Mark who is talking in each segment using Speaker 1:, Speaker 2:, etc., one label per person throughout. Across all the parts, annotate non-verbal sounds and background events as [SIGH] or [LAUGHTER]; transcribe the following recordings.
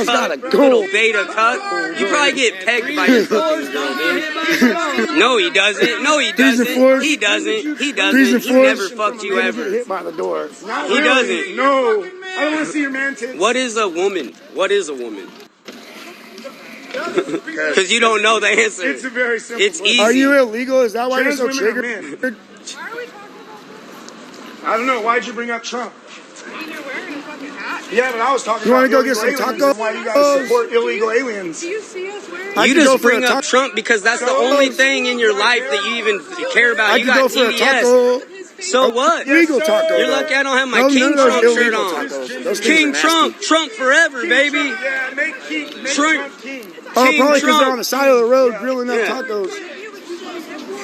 Speaker 1: It's not a girl.
Speaker 2: Beta cuck. You probably get pegged by your fucking girl, [LAUGHS] dude. No, he doesn't. No, he
Speaker 1: Threes and
Speaker 2: doesn't.
Speaker 1: fours.
Speaker 2: He doesn't. He
Speaker 1: Threes
Speaker 2: doesn't.
Speaker 1: and
Speaker 2: He
Speaker 1: fours.
Speaker 2: never fucked you
Speaker 1: Maybe
Speaker 2: ever.
Speaker 1: Get hit by the door.
Speaker 3: Not
Speaker 2: He
Speaker 3: really.
Speaker 2: doesn't.
Speaker 3: No. I don't want to see your man tits.
Speaker 2: What is a woman? What is a woman?
Speaker 1: [LAUGHS]
Speaker 2: Because you don't know the answer.
Speaker 3: It's a very simple.
Speaker 2: It's
Speaker 3: question.
Speaker 2: easy.
Speaker 1: Are you illegal? Is that why you're
Speaker 3: Trans
Speaker 1: so
Speaker 3: women are
Speaker 1: triggered?
Speaker 4: Why are we talking about
Speaker 3: I don't know. Why'd you bring up Trump?
Speaker 4: I mean, you're wearing a fucking hat?
Speaker 3: Yeah, but I was talking
Speaker 1: You
Speaker 3: about
Speaker 1: wanna go
Speaker 3: illegal
Speaker 1: get some
Speaker 3: aliens and Why you guys
Speaker 1: tacos?
Speaker 3: support illegal aliens?
Speaker 4: Do you see us wearing
Speaker 1: I
Speaker 2: You
Speaker 1: could go
Speaker 2: just
Speaker 1: for
Speaker 2: bring
Speaker 1: a
Speaker 2: up
Speaker 1: taco.
Speaker 2: Trump because that's the
Speaker 3: So-
Speaker 2: only thing in your life that you even care about.
Speaker 1: I
Speaker 2: You
Speaker 1: could go
Speaker 2: got
Speaker 1: for a
Speaker 2: TDS.
Speaker 1: taco.
Speaker 4: with his face?
Speaker 2: So what?
Speaker 1: Legal
Speaker 3: sir.
Speaker 1: taco.
Speaker 2: You're
Speaker 1: though.
Speaker 2: lucky I don't have my
Speaker 1: No,
Speaker 2: King
Speaker 1: none of those
Speaker 2: Trump shirt
Speaker 1: illegal
Speaker 2: on.
Speaker 1: tacos. Those things are
Speaker 2: King
Speaker 1: nasty.
Speaker 2: Trump, Trump forever, baby.
Speaker 3: Yeah, make King. Make
Speaker 2: Trump.
Speaker 3: Trump King.
Speaker 1: Oh,
Speaker 2: King
Speaker 1: probably because
Speaker 2: Trump.
Speaker 1: they're on the side of the road grilling up
Speaker 2: Yeah.
Speaker 1: tacos.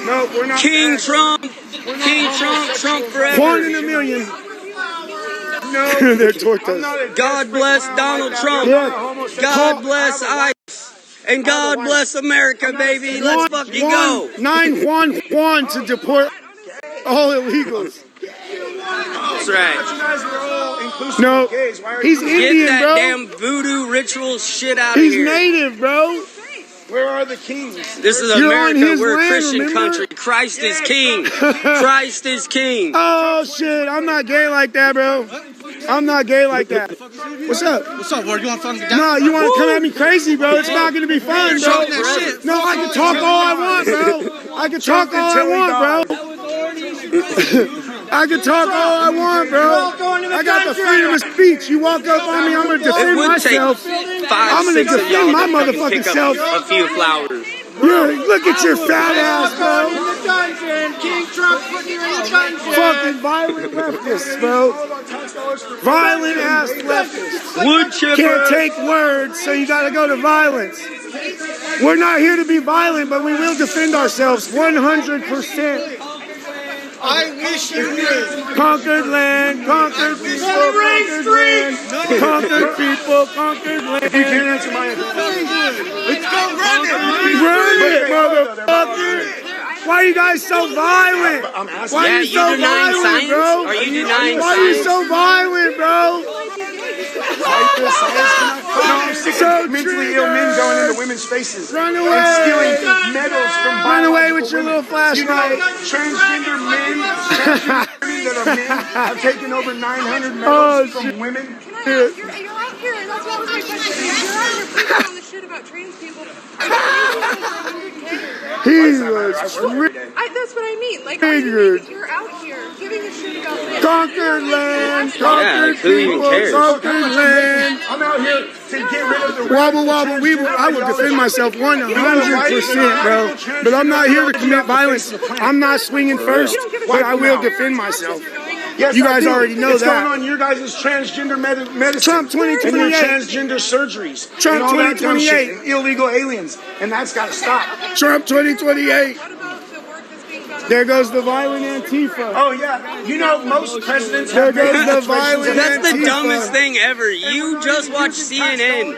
Speaker 3: No, we're not.
Speaker 2: King
Speaker 3: back.
Speaker 2: Trump, King Trump, Trump
Speaker 1: One in
Speaker 2: forever.
Speaker 1: a million.
Speaker 3: No,
Speaker 1: [LAUGHS] They're
Speaker 3: I'm
Speaker 1: tortas.
Speaker 3: not a
Speaker 2: God
Speaker 3: desperate
Speaker 2: bless
Speaker 3: clown
Speaker 2: Donald
Speaker 3: like that.
Speaker 2: Trump.
Speaker 3: I'm not a
Speaker 1: Yeah.
Speaker 3: homosexual.
Speaker 2: God bless
Speaker 3: I'm a white-
Speaker 2: ICE. And God
Speaker 3: wife.
Speaker 2: bless America, baby. Let's
Speaker 1: One-
Speaker 2: fucking
Speaker 1: one-
Speaker 2: go.
Speaker 1: Nine one one to deport all illegals.
Speaker 2: That's right.
Speaker 3: You guys are all inclusive
Speaker 1: No.
Speaker 3: of gays. Why are
Speaker 1: He's
Speaker 3: you-
Speaker 2: Get
Speaker 1: Indian,
Speaker 2: that
Speaker 1: bro.
Speaker 2: damn voodoo ritual shit out of
Speaker 1: He's
Speaker 2: here.
Speaker 1: native, bro.
Speaker 3: Where are the kings?
Speaker 2: This is
Speaker 1: You're on
Speaker 2: America.
Speaker 1: his
Speaker 2: We're a
Speaker 1: land,
Speaker 2: Christian
Speaker 1: remember?
Speaker 2: country. Christ is king. Christ is king.
Speaker 1: Oh shit, I'm not gay like that, bro. I'm not gay like that. What's up?
Speaker 5: What's up, word? You want fun? Get down.
Speaker 1: No, you want to come at me crazy, bro? It's not gonna be fun, bro.
Speaker 5: Talk that shit.
Speaker 1: No, I can talk all I want, bro. I can talk all I want, bro. [LAUGHS] I can talk all I want, bro. I got the freedom of speech. You walk up on me, I'm gonna
Speaker 2: It
Speaker 1: defend
Speaker 2: would take
Speaker 1: myself.
Speaker 2: 5
Speaker 1: I'm gonna
Speaker 2: six of y'all
Speaker 1: defend my
Speaker 2: to fucking
Speaker 1: motherfucking
Speaker 2: pick up
Speaker 1: self.
Speaker 2: a few flowers.
Speaker 1: You're, look at your fat ass, bro.
Speaker 3: King Trump put you in the dungeon.
Speaker 1: Fucking violent leftists, bro. Violent ass leftists.
Speaker 2: Wood
Speaker 1: Can't
Speaker 2: chipper.
Speaker 1: take words, so you gotta go to violence. We're not here to be violent, but we will defend ourselves 100%.
Speaker 5: I wish you knew.
Speaker 1: Conquered land, conquered people, conquered land, conquered people, conquered
Speaker 3: You
Speaker 1: land.
Speaker 3: can't answer my.
Speaker 5: Let's go run it.
Speaker 1: Run it, motherfucker! Why are you guys so violent?
Speaker 3: I'm asking.
Speaker 1: Why
Speaker 2: Yeah,
Speaker 1: are you
Speaker 2: you
Speaker 1: so
Speaker 2: denying
Speaker 1: violent,
Speaker 2: science?
Speaker 1: bro?
Speaker 2: Are you denying
Speaker 1: Why are you
Speaker 2: science?
Speaker 1: so violent, bro?
Speaker 3: No, I'm sick
Speaker 1: So
Speaker 3: of mentally ill men going into women's faces
Speaker 1: Run
Speaker 3: and
Speaker 1: away.
Speaker 3: stealing medals from
Speaker 1: Run away
Speaker 3: biological
Speaker 1: with your
Speaker 3: women.
Speaker 1: little flashlight.
Speaker 3: You know, transgender men, transgender women that are men, have taken over 900
Speaker 1: [LAUGHS] Oh,
Speaker 3: medals from women.
Speaker 4: Can I ask your, you're out here, and that's what was my question. You're out here preaching on the shit about trans people. I've been dating since I was 100K.
Speaker 1: He
Speaker 3: I
Speaker 1: was
Speaker 3: work every
Speaker 1: tri-
Speaker 3: day.
Speaker 4: I, that's what I mean. Like, I
Speaker 1: Figured.
Speaker 4: think you're out here giving a shit about this.
Speaker 1: conquered land,
Speaker 2: Yeah,
Speaker 1: conquered
Speaker 2: like, who even
Speaker 1: people,
Speaker 2: cares?
Speaker 1: conquered land.
Speaker 3: I'm out here to get rid of the
Speaker 1: Wobble, wobble, weeble. I will defend myself 100%, bro. But I'm not here to commit violence. I'm not swinging first, but I will defend myself.
Speaker 3: Yes,
Speaker 1: You
Speaker 3: I
Speaker 1: guys
Speaker 3: do.
Speaker 1: already know
Speaker 3: it's
Speaker 1: that.
Speaker 3: going on your guys' transgender med- medicine.
Speaker 1: Trump 2028.
Speaker 3: And your transgender surgeries.
Speaker 1: Trump
Speaker 3: and all that dumb shit,
Speaker 1: 2028.
Speaker 3: and illegal aliens. And that's got to stop.
Speaker 1: Trump 2028.
Speaker 4: What about the work that's being done? on-
Speaker 1: There goes the violent Antifa.
Speaker 3: Oh, yeah. You know, most presidents
Speaker 1: There
Speaker 3: have made [LAUGHS]
Speaker 1: goes the
Speaker 3: situations
Speaker 1: violence.
Speaker 3: in
Speaker 2: That's the
Speaker 1: Antifa.
Speaker 2: dumbest thing ever. You just watch CNN.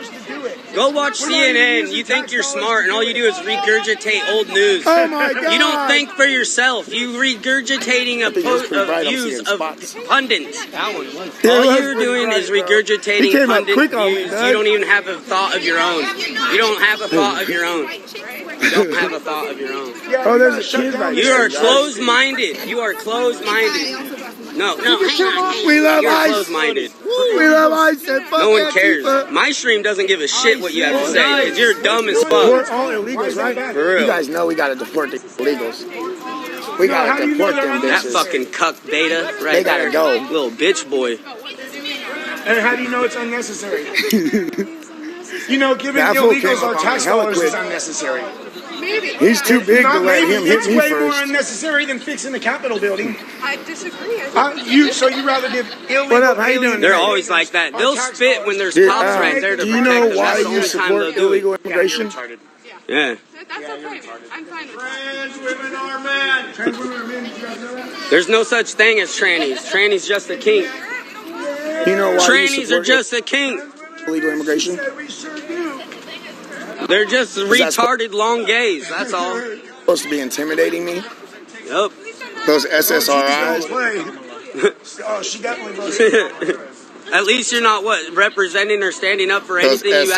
Speaker 2: Go watch CNN. You think you're smart, and all you do is regurgitate old news.
Speaker 1: Oh my God.
Speaker 2: You don't think for yourself. You regurgitating a
Speaker 1: was
Speaker 2: po-
Speaker 1: pretty
Speaker 2: of
Speaker 1: bright. I'm
Speaker 2: views
Speaker 1: seeing
Speaker 2: of
Speaker 1: spots.
Speaker 2: pundits.
Speaker 1: Yeah, it
Speaker 2: All
Speaker 1: was
Speaker 2: you're
Speaker 1: pretty
Speaker 2: doing
Speaker 1: bright,
Speaker 2: is
Speaker 1: bro. He
Speaker 2: regurgitating
Speaker 1: came up
Speaker 2: pundit
Speaker 1: quick on me,
Speaker 2: views.
Speaker 1: Doug.
Speaker 2: You don't even have a thought of your own. You don't have a thought of your own. You don't have a thought of your own.
Speaker 1: Oh, there's a kid right
Speaker 2: You
Speaker 1: here.
Speaker 2: are closed-minded. You are closed-minded. No, no, hang on. hang on.
Speaker 1: We love
Speaker 2: You are
Speaker 1: ICE.
Speaker 2: closed-minded.
Speaker 1: We love ICE. and fuck
Speaker 2: No one cares.
Speaker 1: Antifa.
Speaker 2: My stream doesn't give a shit what you have to say because you're dumb as
Speaker 1: We're
Speaker 2: fuck.
Speaker 1: all illegals, right?
Speaker 2: For
Speaker 6: You
Speaker 2: real.
Speaker 6: guys know we gotta deport the illegals. We
Speaker 3: how do
Speaker 6: gotta
Speaker 3: you know
Speaker 6: deport
Speaker 3: they're
Speaker 6: them
Speaker 3: on
Speaker 2: That
Speaker 6: bitches.
Speaker 2: fucking cuck beta right
Speaker 6: They gotta
Speaker 2: there.
Speaker 6: go.
Speaker 2: Little bitch boy.
Speaker 3: And how do you know it's
Speaker 1: [LAUGHS]
Speaker 3: unnecessary? you know, giving
Speaker 1: That fool came
Speaker 3: illegals
Speaker 1: up
Speaker 3: our
Speaker 1: on
Speaker 3: tax
Speaker 1: me hella
Speaker 3: dollars is
Speaker 1: quick.
Speaker 3: unnecessary.
Speaker 4: Maybe.
Speaker 1: He's too big to
Speaker 3: Not
Speaker 1: let
Speaker 3: maybe.
Speaker 1: him hit
Speaker 3: It's
Speaker 1: me
Speaker 3: way more
Speaker 1: first.
Speaker 3: unnecessary than fixing the Capitol building.
Speaker 4: I disagree. I think
Speaker 3: Uh, you so you rather give illegal
Speaker 1: What up? How you doing?
Speaker 3: aliens-
Speaker 2: They're always like that. They'll spit when there's
Speaker 1: Dude,
Speaker 2: cops
Speaker 1: Al,
Speaker 2: right there to
Speaker 1: do you
Speaker 2: protect
Speaker 1: know
Speaker 2: them.
Speaker 1: why
Speaker 2: That's the
Speaker 1: you
Speaker 2: only time
Speaker 1: support
Speaker 2: they'll do it.
Speaker 1: illegal immigration?
Speaker 2: Yeah.
Speaker 4: that- that's okay. I'm fine with that.
Speaker 3: Trans women are men. Trans women are men. Did you guys know that?
Speaker 2: There's no such thing as trannies. Trannies just a kink.
Speaker 1: You know why you
Speaker 2: Trannies are
Speaker 1: support
Speaker 2: just a kink.
Speaker 6: Illegal immigration.
Speaker 3: Said we sure do.
Speaker 2: They're just
Speaker 6: that's-
Speaker 2: retarded long gays. That's all.
Speaker 6: Supposed to be intimidating me.
Speaker 2: Yup.
Speaker 6: Those
Speaker 3: She just don't [LAUGHS]
Speaker 6: SSRIs.
Speaker 3: play. oh, she definitely voted.
Speaker 2: At least you're not what representing or standing up for
Speaker 6: Those
Speaker 2: anything you